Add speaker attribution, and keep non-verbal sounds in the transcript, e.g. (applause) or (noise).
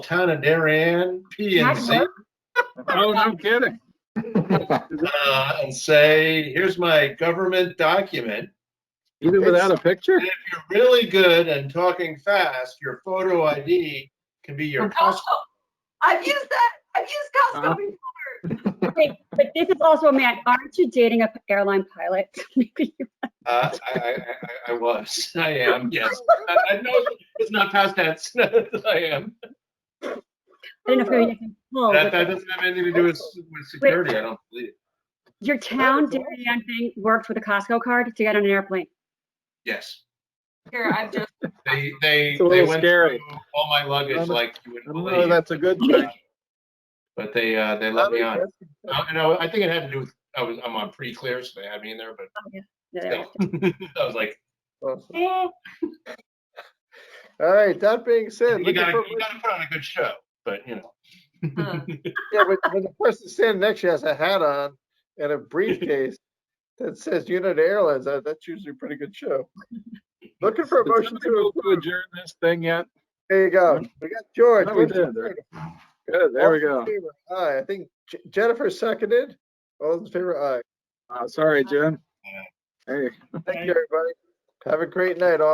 Speaker 1: town of Darien, PNC,
Speaker 2: Oh, no kidding.
Speaker 1: uh, and say, here's my government document.
Speaker 2: Even without a picture?
Speaker 1: If you're really good and talking fast, your photo ID can be your
Speaker 3: Costco.
Speaker 1: passport.
Speaker 3: Oh, I've used that. I've used
Speaker 2: Huh?
Speaker 3: Costco before.
Speaker 1: Uh-huh. (laughs)
Speaker 4: Wait, But this is also a man. Aren't you dating a p- airline pilot? (laughs) Maybe you-
Speaker 1: Uh, I, I, I- I, I was, (laughs) I am, yes. I, I know it's not past tense. (laughs) I am.
Speaker 4: I don't know if
Speaker 3: Oh.
Speaker 4: you're making pull,
Speaker 1: That,
Speaker 4: but
Speaker 1: that doesn't have anything to do with, with security, I don't believe.
Speaker 4: your town Darien thing worked with a Costco card to get on an airplane.
Speaker 1: Yes.
Speaker 3: Here, I've
Speaker 4: (laughs)
Speaker 3: just,
Speaker 1: They, they,
Speaker 2: It's a
Speaker 1: they
Speaker 2: little
Speaker 1: went
Speaker 2: scary.
Speaker 1: through all my luggage
Speaker 2: I'm-
Speaker 1: like you would
Speaker 2: I don't know if
Speaker 1: believe,
Speaker 2: that's a good thing.
Speaker 1: but they, uh, they let me on. Uh, You know, I think it had to do with, I was, I'm on pre-clear, so they had me in there, but
Speaker 4: Yeah,
Speaker 1: Yeah.
Speaker 4: yeah.
Speaker 1: (laughs) I was like,
Speaker 2: Awesome.
Speaker 1: eh,
Speaker 2: All right, that being said,
Speaker 1: you
Speaker 2: looking
Speaker 1: gotta,
Speaker 2: for-
Speaker 1: you gotta put on a good show, but you know.
Speaker 3: uh,
Speaker 2: yeah, when, when the person standing next to you has a hat on and a briefcase (laughs) that says United Airlines, that, that's usually a pretty good show. Looking for a motion to,
Speaker 5: adjourn this thing yet?
Speaker 2: there you go. We got George.
Speaker 5: No, we
Speaker 2: motion
Speaker 5: did.
Speaker 2: second.
Speaker 5: Good, there we
Speaker 2: All
Speaker 5: go.
Speaker 2: in favor, Aye, I think J- Jennifer seconded. All those in favor, aye.
Speaker 5: Uh, sorry, Jen. Hey.
Speaker 2: Thank you, everybody. Have a great night, all.